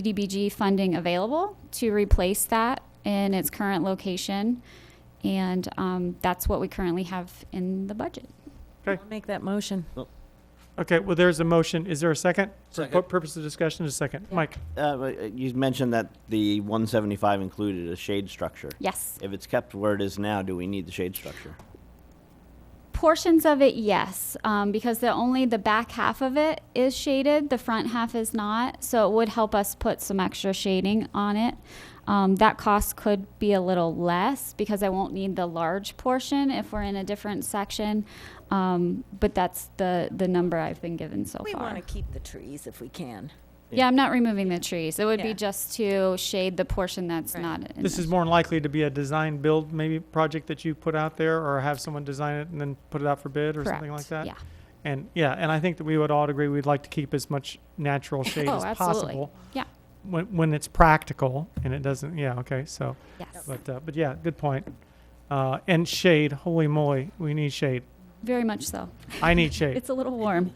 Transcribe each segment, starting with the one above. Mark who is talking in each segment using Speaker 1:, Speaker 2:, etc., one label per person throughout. Speaker 1: CDBG funding available to replace that in its current location. And um, that's what we currently have in the budget.
Speaker 2: Okay.
Speaker 3: I'll make that motion.
Speaker 2: Okay, well, there's a motion. Is there a second? For
Speaker 4: Second.
Speaker 2: pu- purposes of discussion, a second. Mike,
Speaker 5: Uh, but, uh, You mentioned that the 175 included a shade structure.
Speaker 1: Yes.
Speaker 5: If it's kept where it is now, do we need the shade structure?
Speaker 1: Portions of it, yes, um, because the only the back half of it is shaded, the front half is not. So it would help us put some extra shading on it. Um, that cost could be a little less because I won't need the large portion if we're in a different section. Um, but that's the the number I've been given so
Speaker 3: We
Speaker 1: far.
Speaker 3: want to keep the trees if we can.
Speaker 1: yeah, I'm not removing the trees. It would
Speaker 3: Yeah.
Speaker 1: be just to shade the portion that's
Speaker 3: Right.
Speaker 1: not. In
Speaker 2: this
Speaker 1: the-
Speaker 2: is more than likely to be a design build maybe project that you put out there or have someone design it and then put it out for bid or something like
Speaker 1: Correct,
Speaker 2: that.
Speaker 1: Yeah.
Speaker 2: And yeah, and I think that we would all agree we'd like to keep as much natural shade
Speaker 1: Oh,
Speaker 2: as
Speaker 1: absolutely.
Speaker 2: possible.
Speaker 1: Yeah.
Speaker 2: When, when it's practical and it doesn't, yeah, okay, so,
Speaker 1: Yes.
Speaker 2: but, uh, but yeah, good point. Uh, and shade, holy moly, we need shade.
Speaker 1: Very much so.
Speaker 2: I need shade.
Speaker 1: It's a little warm.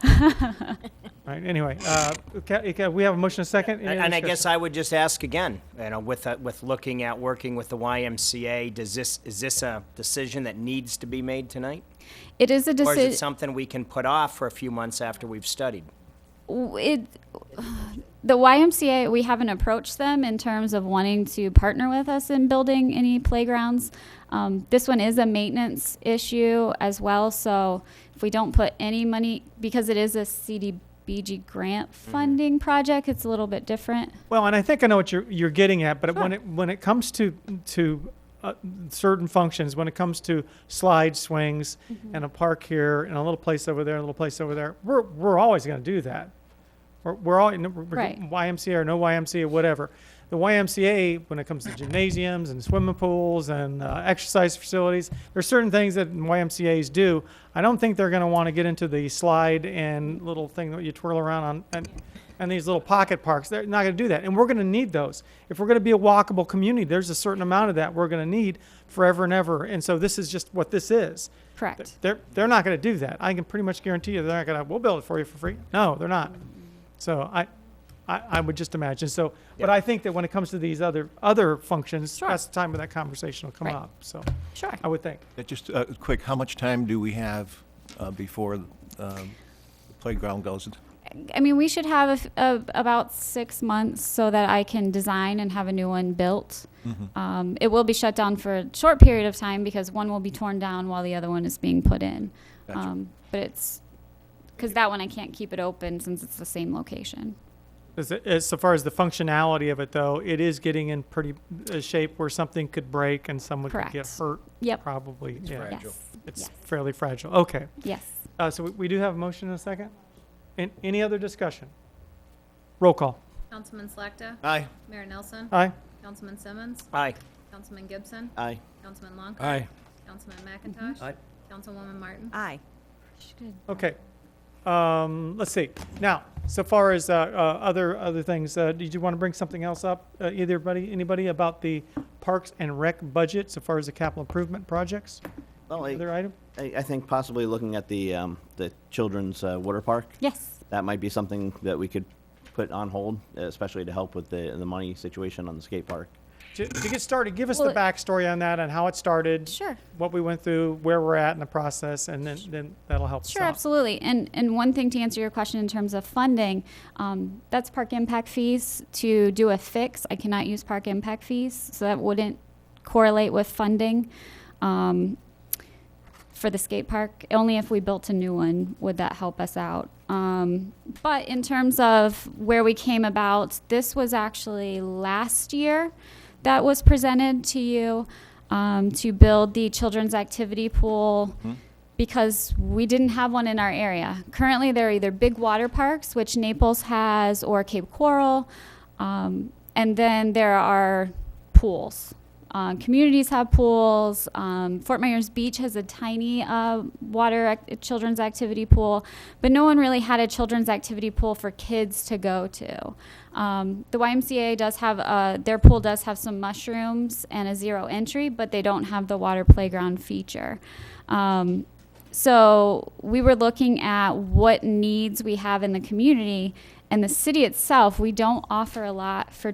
Speaker 2: All right, anyway, uh, okay, okay, we have a motion and a second. Any
Speaker 4: And
Speaker 2: other
Speaker 4: and I
Speaker 2: discussion?
Speaker 4: guess I would just ask again, you know, with, uh, with looking at, working with the YMCA, does this, is this a decision that needs to be made tonight?
Speaker 1: It is a
Speaker 4: Or is it
Speaker 1: decision.
Speaker 4: something we can put off for a few months after we've studied?
Speaker 1: It, the YMCA, we haven't approached them in terms of wanting to partner with us in building any playgrounds. Um, this one is a maintenance issue as well, so if we don't put any money, because it is a CDBG grant funding project, it's a little bit different.
Speaker 2: Well, and I think I know what you're you're getting at, but when
Speaker 1: Sure.
Speaker 2: it when it comes to to uh, certain functions, when it comes to slide swings and a park here and a little place over there, and a little place over there, we're we're always going to do that. We're, we're all we're- we're
Speaker 1: Right.
Speaker 2: YMCA or no YMCA, whatever. The YMCA, when it comes to gymnasiums and swimming pools and uh, exercise facilities, there's certain things that YMCA's do. I don't think they're going to want to get into the slide and little thing that you twirl around on and, and these little pocket parks. They're not going to do that. And we're going to need those. If we're going to be a walkable community, there's a certain amount of that we're going to need forever and ever. And so this is just what this is.
Speaker 1: Correct.
Speaker 2: They're, they're not going to do that. I can pretty much guarantee you they're not going to, we'll build it for you for free. No, they're not. So I, I, I would just imagine. So, but
Speaker 4: Yeah.
Speaker 2: I think that when it comes to these other, other functions,
Speaker 1: Sure.
Speaker 2: that's the time when that conversation will come
Speaker 1: Right.
Speaker 2: up. So
Speaker 1: Sure.
Speaker 2: I would think.
Speaker 6: Uh, Just uh, quick, how much time do we have uh, before um, the playground goes?
Speaker 1: I mean, we should have a f- a- about six months so that I can design and have a new one built. Um, it will be shut down for a short period of time because one will be torn down while the other one is being put in.
Speaker 6: Gotcha.
Speaker 1: Um, but it's because that one I can't keep it open since it's the same location.
Speaker 2: As, as so far as the functionality of it though, it is getting in pretty uh, shape where something could break and someone could get
Speaker 1: Correct.
Speaker 2: hurt.
Speaker 1: Yep.
Speaker 2: Probably. yeah.
Speaker 4: fragile.
Speaker 2: It's
Speaker 1: Yes.
Speaker 2: fairly fragile. Okay.
Speaker 1: Yes.
Speaker 2: Uh, so we, we do have a motion in a second. And any other discussion? Roll call.
Speaker 7: Councilman Slakta.
Speaker 6: Aye.
Speaker 7: Mayor Nelson.
Speaker 2: Aye.
Speaker 7: Councilman Simmons.
Speaker 4: Aye.
Speaker 7: Councilman Gibson.
Speaker 5: Aye.
Speaker 7: Councilman Long.
Speaker 4: Aye.
Speaker 7: Councilman McIntosh.
Speaker 4: Aye.
Speaker 7: Councilwoman Martin.
Speaker 3: Aye.
Speaker 2: Okay. Um, let's see. Now, so far as uh, uh, other other things, uh, did you want to bring something else up, uh, either buddy, anybody about the parks and rec budget, so far as the capital improvement projects?
Speaker 5: Well, I,
Speaker 2: Other item?
Speaker 5: I I think possibly looking at the, um, the children's uh, water park,
Speaker 1: Yes.
Speaker 5: that might be something that we could put on hold, especially to help with the, the money situation on the skate park.
Speaker 2: To, to get started, give us
Speaker 1: Well,
Speaker 2: the
Speaker 1: it-
Speaker 2: backstory on that and how it started,
Speaker 1: Sure.
Speaker 2: what we went through, where we're at in the process, and then, then that'll help us
Speaker 1: Sure,
Speaker 2: out.
Speaker 1: absolutely. And and one thing to answer your question in terms of funding, um, that's park impact fees. To do a fix, I cannot use park impact fees, so that wouldn't correlate with funding. Um, for the skate park, only if we built a new one would that help us out. Um, but in terms of where we came about, this was actually last year that was presented to you um, to build the children's activity pool because we didn't have one in our area. Currently, there are either big water parks, which Naples has, or Cape Coral, um, and then there are pools. Um, communities have pools. Um, Fort Myers Beach has a tiny uh, water ac- children's activity pool, but no one really had a children's activity pool for kids to go to. Um, the YMCA does have uh, their pool does have some mushrooms and a zero entry, but they don't have the water playground feature. Um, so we were looking at what needs we have in the community And the city itself, we don't offer a lot for